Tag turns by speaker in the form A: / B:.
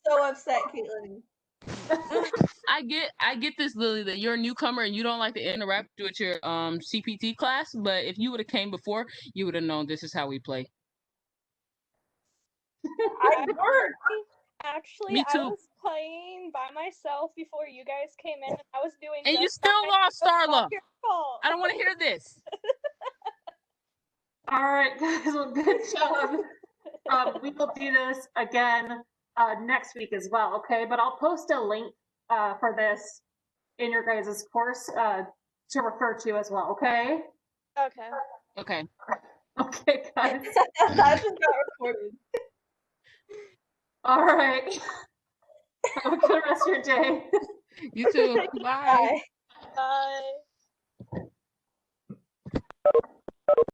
A: upset, Caitlin.
B: I get I get this, Lily, that you're a newcomer and you don't like to interact with your um CPT class, but if you would have came before, you would have known this is how we play.
A: I work.
C: Actually,
B: Me
C: I
B: too.
C: was playing by myself before you guys came in, and I was doing.
B: And you
C: just fine.
B: still lost,
C: It's not
B: Starla.
C: your fault.
B: I don't want to hear this.
D: All right, guys. Well, good job. um, we will do this again uh, next week as well. Okay, but I'll post a link uh, for this in your guys' course uh, to refer to as well. Okay.
C: Okay.
B: Okay.
D: Okay, guys.
A: that just got recorded.
D: All right. Have a good rest of your day.
B: You too. Bye.
A: Bye.
C: Bye.